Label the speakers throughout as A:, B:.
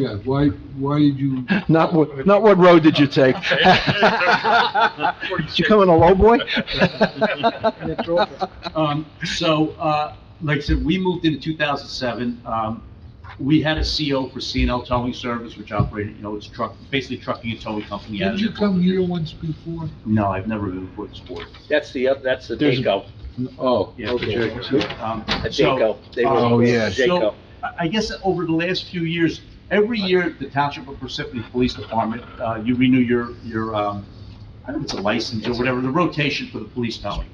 A: Yeah, why, why did you,
B: Not what, not what road did you take? Did you come in a lowboy?
C: Um, so, uh, like I said, we moved into two thousand seven, um, we had a CO for C and L Towing Service, which operated, you know, it's truck, basically trucking and towing company. out
A: did
C: of
A: you
C: there.
A: come here once before?
C: No, I've never been before this board.
D: That's the, oth- that's the
B: There's a-
D: Daco,
A: Oh,
C: Yeah.
A: okay.
C: Um,
D: a
C: so-
D: Daco. They were-
B: Oh, yeah.
D: Daco.
C: So, I I guess over the last few years, every year, the Township of Parsippany Police Department, uh, you renew your, your, um, I don't know if it's a license or whatever, the rotation for the police towing.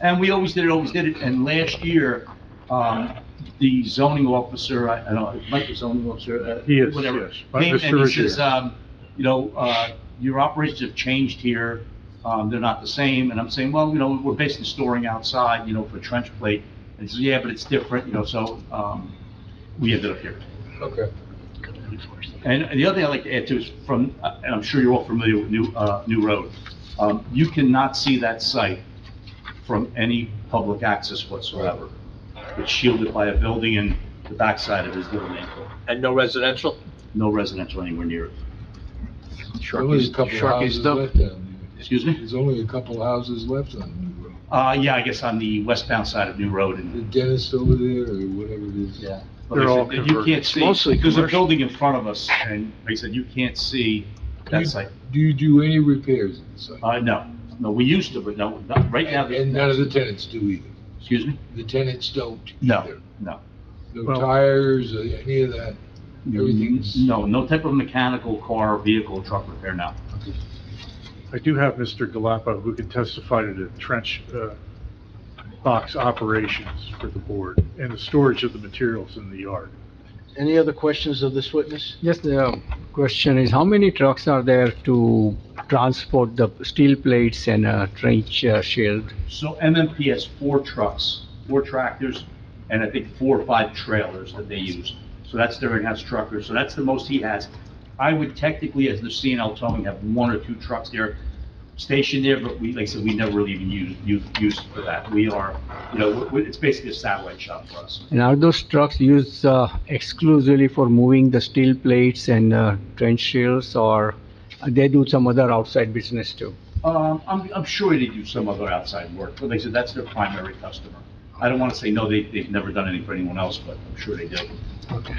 C: And we always did it, always did it, and last year, um, the zoning officer, I, I don't, know, Mike was zoning officer, uh,
E: He is,
C: whatever.
E: yes. Uh,
C: Came and
E: Mr.
C: he
E: Ruggiero.
C: says, um, you know, uh, your operations have changed here, um, they're not the same, and I'm saying, well, you know, we're basically storing outside, you know, for trench plate. And he says, yeah, but it's different, you know, so, um, we ended up here.
A: Okay.
C: And the other thing I'd like to add too is from, uh, and I'm sure you're all familiar with New, uh, New Road. Um, you cannot see that site from any public access whatsoever. It's shielded by a building and the backside of it is little man,
D: And no residential?
C: no residential anywhere near it.
A: Only a couple of
B: Sharky's
A: houses
B: dump.
A: left down here.
C: Excuse me?
A: There's only a couple of houses left on New Road.
C: Uh, yeah, I guess on the westbound side of New Road
A: The
C: and.
A: dentist over there or whatever it is.
C: Yeah.
E: They're all
C: You can't
E: converted.
C: see,
B: Mostly
C: there's a
B: commercial.
C: building in front of us and like I said, you can't see that site.
A: Do you do any repairs in the site?
C: Uh, no, no, we used to, but no, not right now.
A: And none of the tenants do either.
C: Excuse me?
A: The tenants don't
C: No,
A: either.
C: no.
A: No
E: Well-
A: tires, or any of that. Everything's-
C: No, no type of mechanical car, vehicle, truck repair, no.
E: I do have Mr. Galapa, who can testify to the trench uh, box operations for the board and the storage of the materials in the yard.
B: Any other questions of this witness?
F: Yes, the uh, question is, how many trucks are there to transport the steel plates and a trench uh, shield?
C: So MMP has four trucks, four tractors, and I think four or five trailers that they use. So that's their in-house trucker, so that's the most he has. I would technically, as the CNL towing, have one or two trucks there stationed there, but we, like I said, we never really even use, use, use for that. We are, you know, we- we- it's basically a satellite shop for us.
F: And are those trucks used uh, exclusively for moving the steel plates and uh, trench shields, or they do some other outside business too?
C: Um, I'm, I'm sure they do some other outside work, but they said that's their primary customer. I don't want to say, no, they, they've never done anything for anyone else, but I'm sure they do.
F: Okay,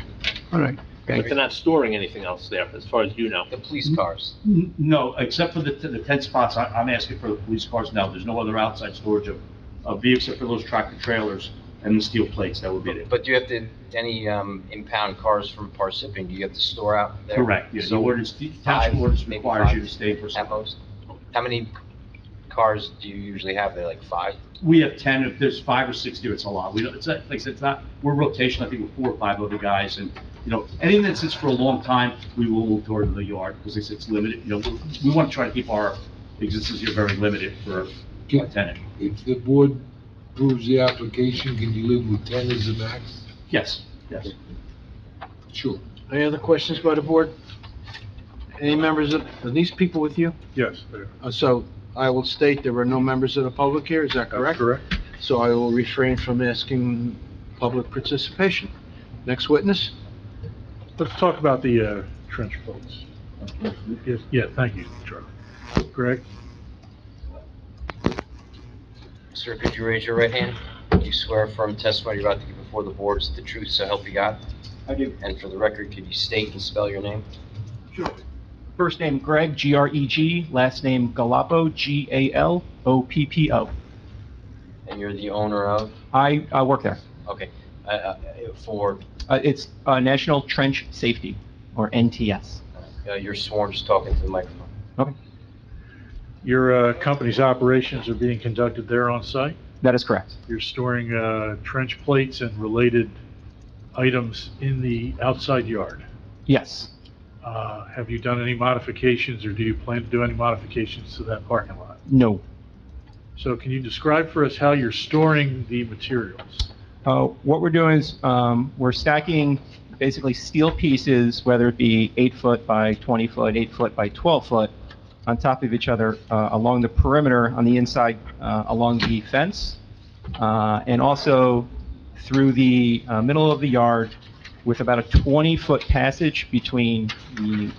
F: all right,
D: But
F: thank
D: they're
F: you.
D: not storing anything else there, as far as you know.
G: The police cars.
C: N- No, except for the, t- the ten spots, I, I'm asking for the police cars now, there's no other outside storage of, of vehicles except for those tractor trailers and the steel plates, that would be it.
G: But do you have to, any um, impound cars from Parsippany, do you have to store out there?
C: Correct, yeah, the
G: So
C: ordinance, the township
G: five,
C: ordinance
G: maybe
C: requires you
G: five
C: to stay for
G: At
C: some.
G: most? How many cars do you usually have there, like five?
C: We have ten, if there's five or six there, it's a lot, we don't, it's, not- like I said, it's not, we're rotation, I think, with four or five other guys, and, you know, anything that sits for a long time, we will move toward the yard, because it's, it's limited, you know, we- we want to try to keep our existence here very limited for a tenant.
A: If the board approves the application, can you live with ten as a max?
C: Yes, yes.
A: Sure.
B: Any other questions by the board? Any members of, are these people with you?
E: Yes, there.
B: Uh, So I will state there are no members of the public here, is that correct?
E: Correct.
B: So I will refrain from asking public participation. Next witness?
E: Let's talk about the uh, trench bolts. Yes, yeah, thank you, Charlie. Greg?
G: Sir, could you raise your right hand? Do you swear affirm testimony you're about to give before the board is the truth, so help you God?
H: I do.
G: And for the record, could you state and spell your name?
H: First name Greg, G-R-E-G, last name Galapo, G-A-L-O-P-P-O.
G: And you're the owner of,
H: I uh, work there.
G: okay, uh, uh, for,
H: Uh, It's uh, National Trench Safety, or NTS.
G: uh, you're sworn, just talking to the microphone.
E: Your uh, company's operations are being conducted there on site?
H: That is correct.
E: You're storing uh, trench plates and related items in the outside yard?
H: Yes.
E: Uh, Have you done any modifications, or do you plan to do any modifications to that parking lot?
H: No.
E: So can you describe for us how you're storing the materials?
H: Uh, What we're doing is, um, we're stacking basically steel pieces, whether it be eight foot by 20 foot, eight foot by 12 foot, on top of each other uh, along the perimeter, on the inside, uh, along the fence, uh, and also through the uh, middle of the yard with about a 20-foot passage between the